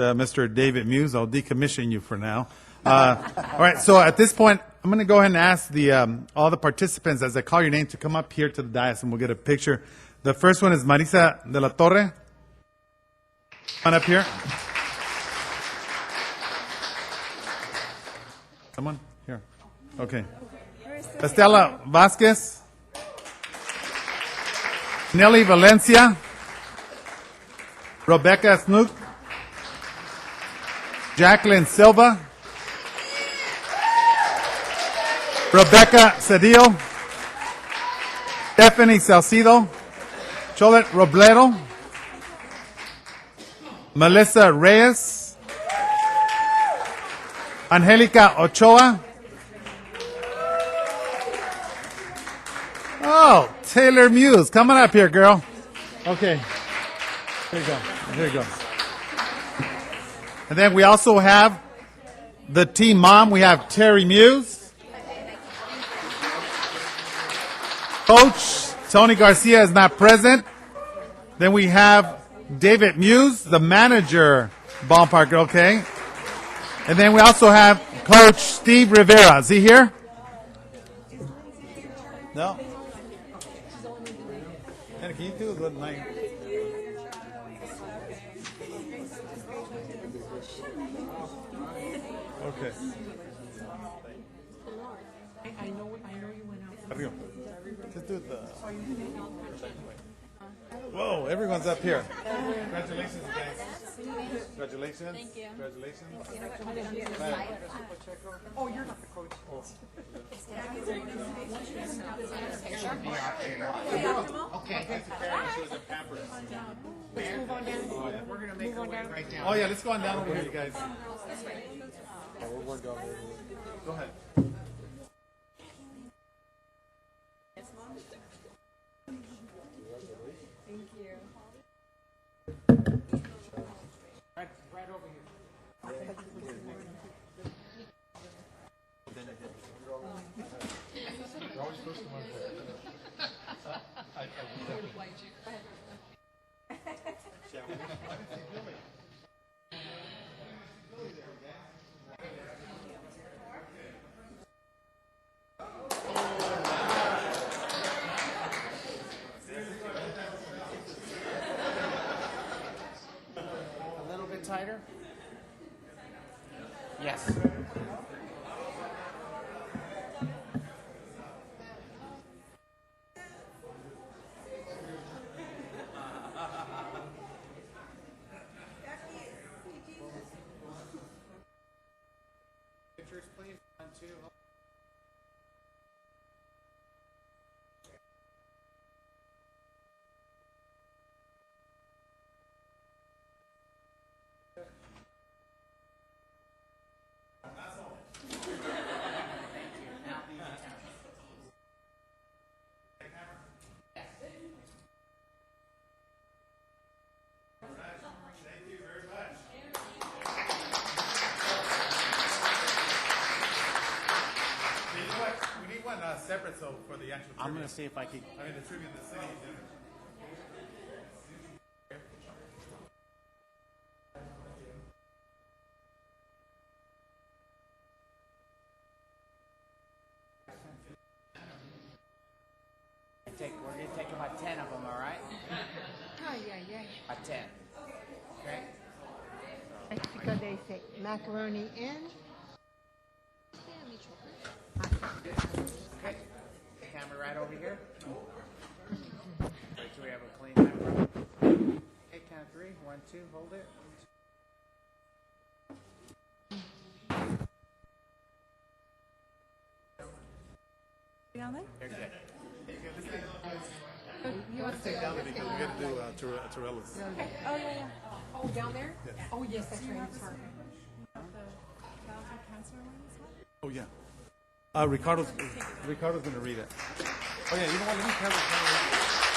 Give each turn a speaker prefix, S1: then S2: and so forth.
S1: uh, Mr. David Muse, I'll decommission you for now. Uh, All right, so at this point, I'm going to go ahead and ask the, um, all the participants, as I call your name, to come up here to the dais, and we'll get a picture. The first one is Marisa de la Torre. Come on up here. Someone? Here. Okay. Estela Vasquez. Nelly Valencia. Rebecca Snook. Jacqueline Silva. Rebecca Cedillo. Stephanie Salcido. Cholet Robledo. Melissa Reyes. Angelica Ochoa. Oh, Taylor Muse, coming up here, girl. Okay. Here you go. Here you go. And then we also have the team mom. We have Terry Muse. Coach Tony Garcia is not present. Then we have David Muse, the manager, ballpark. Okay. And then we also have Coach Steve Rivera. Is he here? No. Anna, can you do the night? Okay.
S2: I know, I know you went out.
S1: Arriba. Just do the. uh, Whoa, everyone's up here. Congratulations, guys. Congratulations. Thank you. Congratulations.
S2: Oh, you're not the coach. Let's move on down. We're gonna make our way right down.
S1: Oh, yeah, let's go on down over here, you guys. Oh, Go ahead.
S2: Right, right over here. A little bit tighter? Yes. Pictures, please. One, two.
S1: You know what? We need one uh, separate, so for the actual.
S2: I'm
S1: trivia.
S2: gonna see if I can.
S1: I mean, the tribute to the city. dinner.
S2: Take, we're gonna take about ten of them, all right? About ten. Okay?
S3: That's because they say macaroni and
S2: Okay. Camera right over here. Make sure we have a clean camera. Okay, count three. One, two, hold it. You're good.
S1: Take down because we gotta do uh, Tore- Torello's.
S4: Oh, yeah, yeah. Oh, down there? Oh, yes, that's right, I'm sorry.
S1: Oh, yeah. Uh, Ricardo's, Ricardo's gonna read it. Oh, yeah, you know what, let me carry it.